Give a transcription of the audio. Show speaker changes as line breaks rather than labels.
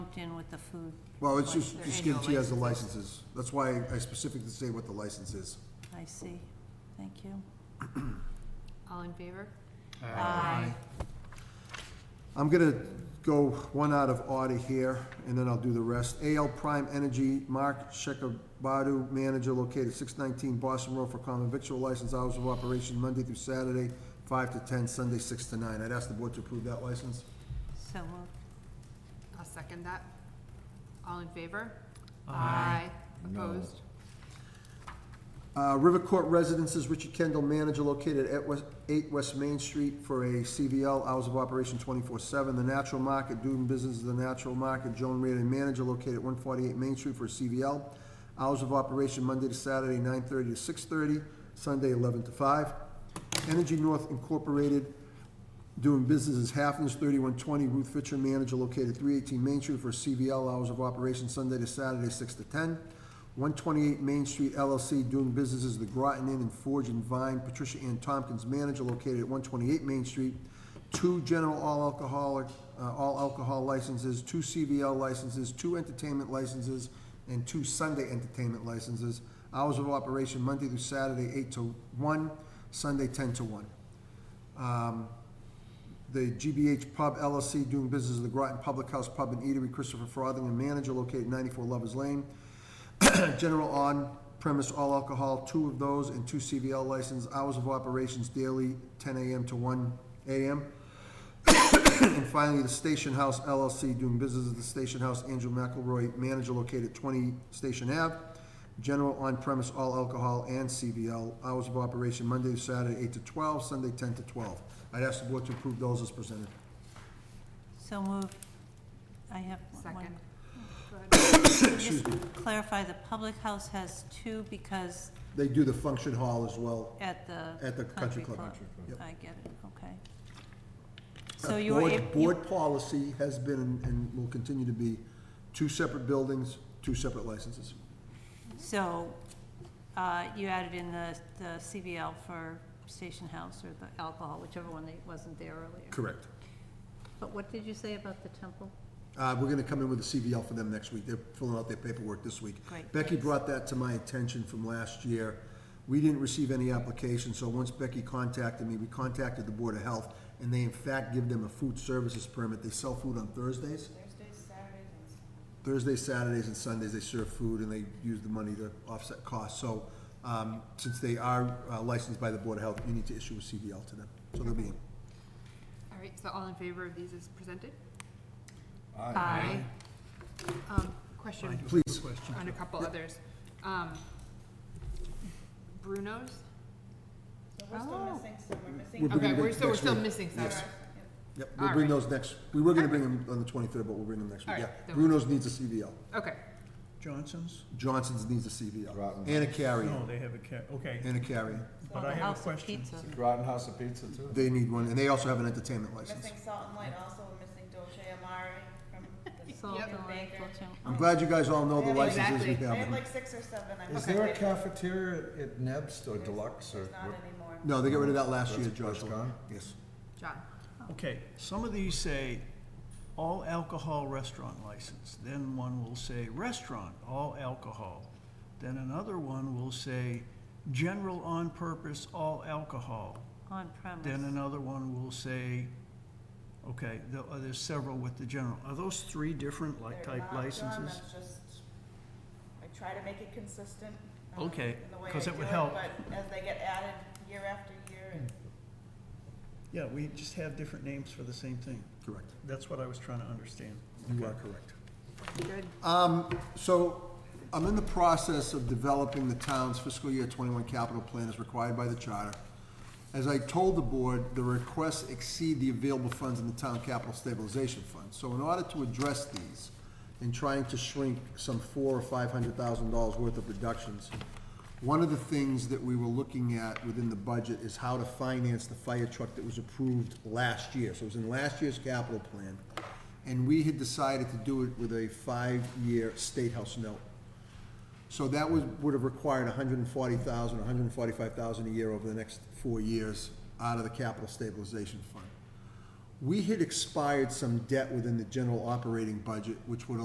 lumped in with the food.
Well, it's
like
just,
their
just
annual
given to you as the
license.
licenses. That's why I specifically say what the license is.
I see, thank you.
All in favor?
Aye.
I'm gonna go one out of order here, and then I'll do the rest. AL Prime Energy, Mark Shekabadu, manager located six nineteen Boston Road for common victual license, hours of operation Monday through Saturday, five to ten, Sunday six to nine. I'd ask the board to approve that license.
So moved.
I'll second that. All in favor? Aye.
No.
Opposed?
Uh, River Court Residences, Richard Kendall, manager located at West, eight West Main Street for a CVL, hours of operation twenty-four seven. The Natural Market, doing business at the Natural Market, Joan Reardon, manager located at one forty-eight Main Street for a CVL. Hours of operation Monday to Saturday, nine thirty to six thirty, Sunday eleven to five. Energy North Incorporated, doing business as Halfness, thirty-one twenty Ruth Fitcher, manager located three eighteen Main Street for CVL hours of operation Sunday to Saturday, six to ten. One twenty-eight Main Street LLC, doing business as The Groton Inn and Forge and Vine, Patricia Ann Tompkins, manager located at one twenty-eight Main Street. Two general all alcoholic, uh, all alcohol licenses, two CVL licenses, two entertainment licenses, and two Sunday entertainment licenses. Hours of operation Monday through Saturday, eight to one, Sunday ten to one. Um, the GBH Pub LLC doing business as the Groton Public House Pub and Eatery, Christopher Frothingham, manager located ninety-four Lovers Lane. General on-premise all alcohol, two of those and two CVL license, hours of operations daily, ten AM to one AM. And finally, the Station House LLC doing business at the Station House, Andrew McElroy, manager located twenty Station Ave. General on-premise all alcohol and CVL, hours of operation Monday to Saturday, eight to twelve, Sunday, ten to twelve. I'd ask the board to approve those as presented.
So moved. I have one.
Second. Go ahead.
Just clarify, the public house has two because
They do the function hall as well
at the.
at the country club. Yep.
I get it, okay.
Uh,
So you were,
board-
ab- you-
Board policy has been and- and will continue to be two separate buildings, two separate licenses.
so, uh, you added in the, the CVL for Station House or the alcohol, whichever one that wasn't there earlier.
Correct.
But what did you say about the temple?
Uh, we're gonna come in with a CVL for them next week. They're filling out their paperwork this week.
Great.
Becky brought that to my attention from last year. We didn't receive any application, so once Becky contacted me, we contacted the Board of Health, and they in fact give them a food services permit. They sell food on Thursdays. Thursdays, Saturdays, and Sundays, they serve food and they use the money to offset costs. So, um, since they are uh, licensed by the Board of Health, you need to issue a CVL to them. So they'll be in.
All right, so all in favor of these as presented? Aye. Um, question
Please.
on a couple others. Um, Bruno's?
So we're still
Oh.
missing some, we're missing.
We're bringing
Okay,
them
we're, so we're
next
still
week.
missing some.
Yes. Yep, we'll
All
bring
right.
those next, we were gonna bring them on the twenty-third, but we'll bring them next week,
All
yeah.
right, then we-
Bruno's needs a CVL,
Okay,
Johnson's?
Johnson's needs a CVL, and a carry,
No, they have a cat, okay,
and a carry,
but I have
House
a
of
question.
Pizza.
Groton House of Pizza too?
they need one, and they also have an entertainment
We're
license.
missing Salt and Light, also we're missing Dolce Amari from the
Salt
Salt
and Light,
Baker.
Dolce Amari.
I'm glad you guys all know the
Yeah,
licenses we
exactly.
They
have.
had
in them.
like six or seven, I
Is
think.
there a cafeteria at Neb's or Deluxe or?
There's not anymore.
No, they got rid of that last year,
That's-
Josh,
that's gone?
yes.
John.
Okay, some of these say all alcohol restaurant license, then one will say restaurant, all alcohol. Then another one will say general on purpose, all alcohol.
On premise.
Then another one will say, okay, there- uh, there's several with the general. Are those three different like
They're not,
type
John,
licenses?
that's just- I try to make it consistent. um,
Okay,
in the way
'cause
I
it would
do
help.
But as they get added year after year, and
Yeah, we just have different names for the same thing.
Correct,
That's what I was trying to understand.
you are correct.
Good.
Um, So, I'm in the process of developing the town's fiscal year twenty-one capital plan as required by the charter. As I told the board, the requests exceed the available funds in the town capital stabilization fund. So in order to address these, and trying to shrink some four or five hundred thousand dollars worth of reductions, one of the things that we were looking at within the budget is how to finance the fire truck that was approved last year. So it was in last year's capital plan. And we had decided to do it with a five-year state house note. So that would, would have required hundred and forty thousand, hundred and forty-five thousand a year over the next four years out of the capital stabilization fund. We had expired some debt within the general operating budget, which would